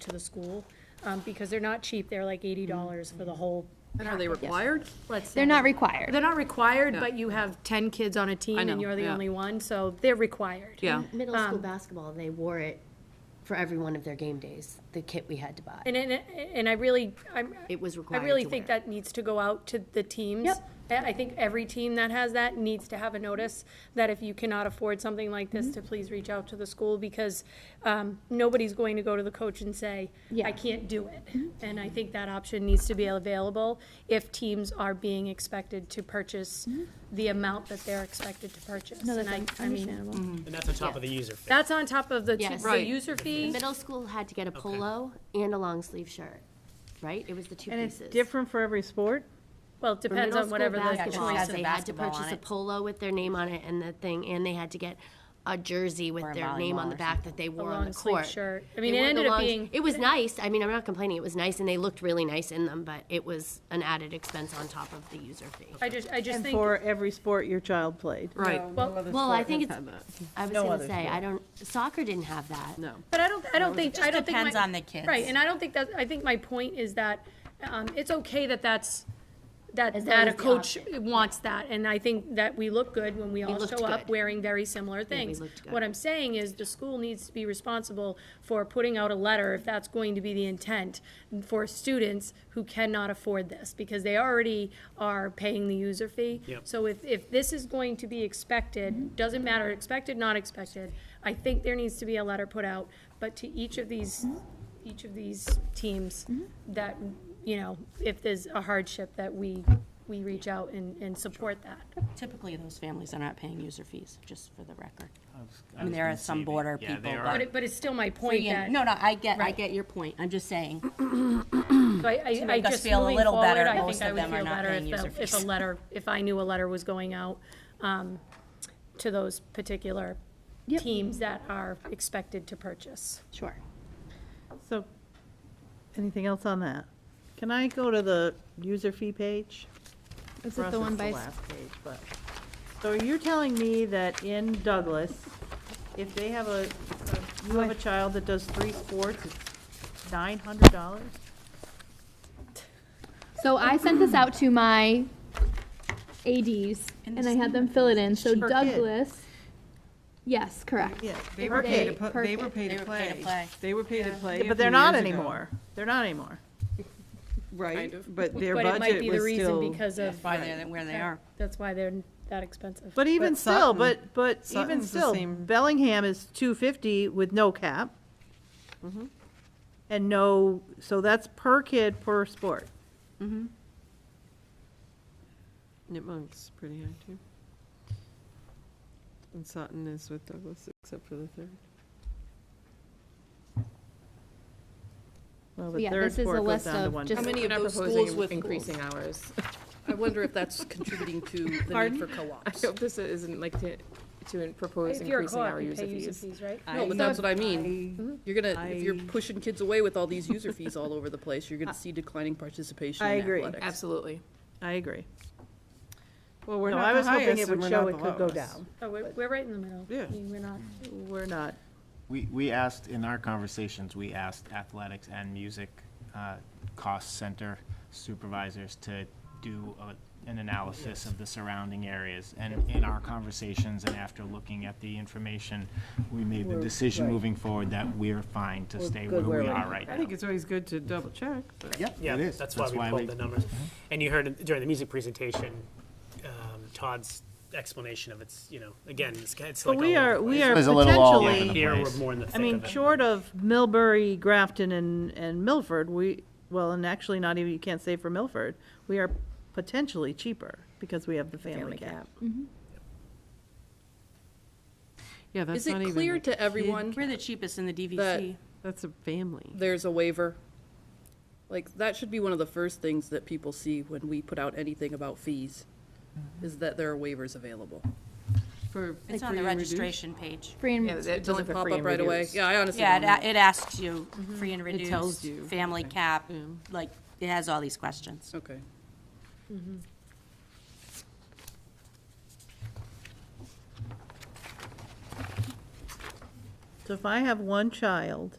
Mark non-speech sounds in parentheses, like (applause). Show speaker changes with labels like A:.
A: to the school, um, because they're not cheap, they're like eighty dollars for the whole.
B: And are they
A: package.
B: required?
A: Let's
C: They're
A: say.
C: not required.
A: They're not required,
B: Yeah.
A: but you have ten kids on a team
B: know,
A: and you're the
B: yeah.
A: only one, so they're required.
B: Yeah.
D: Middle school basketball, they wore it for every one of their game days, the kit we had to buy.
A: And, and, and I really, I'm,
D: It was
A: I
D: required
A: really
D: to
A: think
D: wear
A: that needs to go out to the teams.
D: Yep.
A: I I think every team that has that needs to have a notice that if you cannot afford something like this,
D: Mm-hmm.
A: to please reach out to the school because um, nobody's going to go to the coach and say, I
C: Yeah.
A: can't do it.
D: Mm-hmm.
A: And I think that option needs to be available if teams are being expected to purchase
D: Mm-hmm.
A: the amount that they're expected to purchase.
C: No,
A: And
C: that's
A: I-
C: un-
A: I mean,
C: understandable.
E: And that's on top of the user fee.
A: That's on top of the t-
D: Yes.
A: the
B: Right.
A: user fee.
D: Middle school had to get a polo and a long sleeve shirt, right? It was the two
F: And it's
D: pieces.
F: different for every sport?
A: Well, it
D: For
A: depends
D: middle
A: on
D: school
A: whatever the
D: basketball,
A: choice
D: They
A: of
D: had to
G: basketball on
D: purchase a
G: it.
D: polo with their name on it and the thing, and they had to get a jersey with
G: Or a
D: their name on
G: volleyball
D: the
G: or
D: back that they wore on
A: long
D: the
A: sleeve
D: court.
A: shirt. I
D: They
A: mean, it
D: wore the
A: ended up
D: long-
A: being-
D: It was nice. I mean, I'm not complaining. It was nice, and they looked really nice in them, but it was an added expense on top of the user fee.
A: I just, I just
F: And
A: think.
F: for every sport your child played?
B: Right.
D: Well, I think it's, I was
F: No
D: gonna
F: other
D: say, I don't, soccer didn't have that.
B: No.
A: But I don't, I don't think, I don't think.
G: depends
A: my-
G: on the kids.
A: Right, and I don't think that, I think my point is that, um, it's okay that that's, that,
D: As
A: that
D: long
A: a
D: as the
A: coach wants that, and I think that we look good when we all
D: looked
A: show up
D: good.
A: wearing very similar things.
D: looked good.
A: What I'm saying is the school needs to be responsible for putting out a letter, if that's going to be the intent, for students who cannot afford this, because they already are paying the user fee.
E: Yep.
A: So if, if this is going to be
D: Mm-hmm.
A: expected, doesn't matter, expected, not expected, I think there needs to be a letter put out, but to each of these,
D: Mm-hmm.
A: each of these teams, that, you know, if there's a hardship, that we, we reach out and, and support that.
G: Typically, those families are not paying user fees, just for the record.
E: I
G: mean, there are
E: was gonna
G: some
E: say they-
G: border
E: yeah, they
G: people,
A: But
E: are.
A: it, but it's still my point that,
G: No, no, I get, I
A: Right.
G: get your point. I'm just saying,
A: so I, I- I
G: make us
A: just
G: feel a
A: moving
G: little
A: forward,
G: better,
A: I
G: most
A: think I
G: of
A: would
G: them are
A: feel
G: not
A: better if,
G: paying user
A: the- if a
G: fees.
A: letter, if I knew a letter was going out, um, to those particular teams that are expected to purchase.
C: Sure.
F: So, anything else on that? Can I go to the user fee page?
C: Is
F: For
C: it
F: us,
C: the one
F: it's
C: by, s-
F: last page, but- So you're telling me that in Douglas, if they have a, you have a child that does three sports, it's nine hundred dollars?
C: so I sent this out to my ADs and I had them fill it in, so
F: Per kid.
C: Douglas. Yes, correct.
H: Yeah, they were paid to,
C: per
H: pu- they were
C: kid.
H: paid
G: They
H: to
G: were paid to
H: play.
G: play.
H: They were paid to play. a
F: But
H: few
F: they're not
H: years ago.
F: anymore. They're not anymore.
H: Right,
B: of.
H: but their
A: But it might
H: budget
A: be the
H: was
A: reason
H: still,
A: because of,
G: why they're where they are.
A: that's why they're that expensive.
F: But even
H: But
F: still,
H: Sutton-
F: but, but even
H: Sutton's the
F: still,
H: same.
F: Bellingham is two fifty with no cap.
H: Mm-hmm.
F: And no, so that's per kid per sport.
H: Nipmunk's pretty high too. And Sutton is with Douglas, except for the third.
F: Well,
C: So
F: the
C: yeah,
F: third
C: this is a
F: sport goes
C: list
F: down to
C: of
F: one.
C: just-
B: How
C: How
B: many of those schools with increasing hours? (laughs) I wonder if that's contributing to the need for co-ops.
I: this isn't like to, to propose
A: If you're a co-op, you pay user fees, right?
H: Uh,
B: No, but that's what I
H: Mm-hmm.
B: mean. You're gonna, if you're pushing kids away with all these user fees all over the place, you're gonna see declining participation
F: I
B: in
F: agree.
B: athletics.
I: Absolutely.
F: I agree.
H: Well, we're
F: No,
H: not
F: I
H: the
F: was hoping
H: highest
F: it
H: and
F: would
H: we're
F: show
H: not the
F: it could go
H: lowest.
F: down.
A: Oh, we're, we're right in the middle.
H: Yeah.
A: I mean, We're not.
F: We're not,
J: We, we asked, in our conversations, we asked athletics and music uh, cost center supervisors to do a- an analysis of the surrounding areas. And in our conversations and after looking at the information, we made the decision moving forward that we're fine to stay where we are right
H: I
J: now.
H: think it's always good to double check, but
J: Yep,
E: Yeah,
J: it is.
E: that's why we Mm-hmm. pulled the numbers. And you heard during the music presentation, um, Todd's explanation of it's, you know, again, it's, it's
F: but
E: like.
F: we
E: all over
F: are,
E: the
F: we
E: place.
F: are
J: It's a little all over the
F: potentially,
E: Here, we're
J: place.
E: more in the
F: I
E: thick
F: mean,
E: of it.
F: short of Millbury, Grafton, and, and Milford, we, well, and actually not even, you can't say for Milford, we are potentially cheaper because we have the family cap.
H: yeah, that's
B: Is
H: not even.
B: it clear
H: a
B: to everyone
G: We're the cheapest in the
B: that
G: DVC.
H: That's a family.
B: there's a waiver? Like, that should be one of the first things that people see when we put out anything about fees, is that there are waivers available.
H: For-
G: It's
H: for
G: on the
H: your reduced-
G: registration page.
C: Free and-
B: It doesn't pop up right away. Yeah, I honestly don't
G: Yeah,
B: know.
G: it, it asks you, free and
H: It tells
G: reduced,
H: you.
G: family cap, like, it has all these questions.
B: Okay.
F: So if I have one child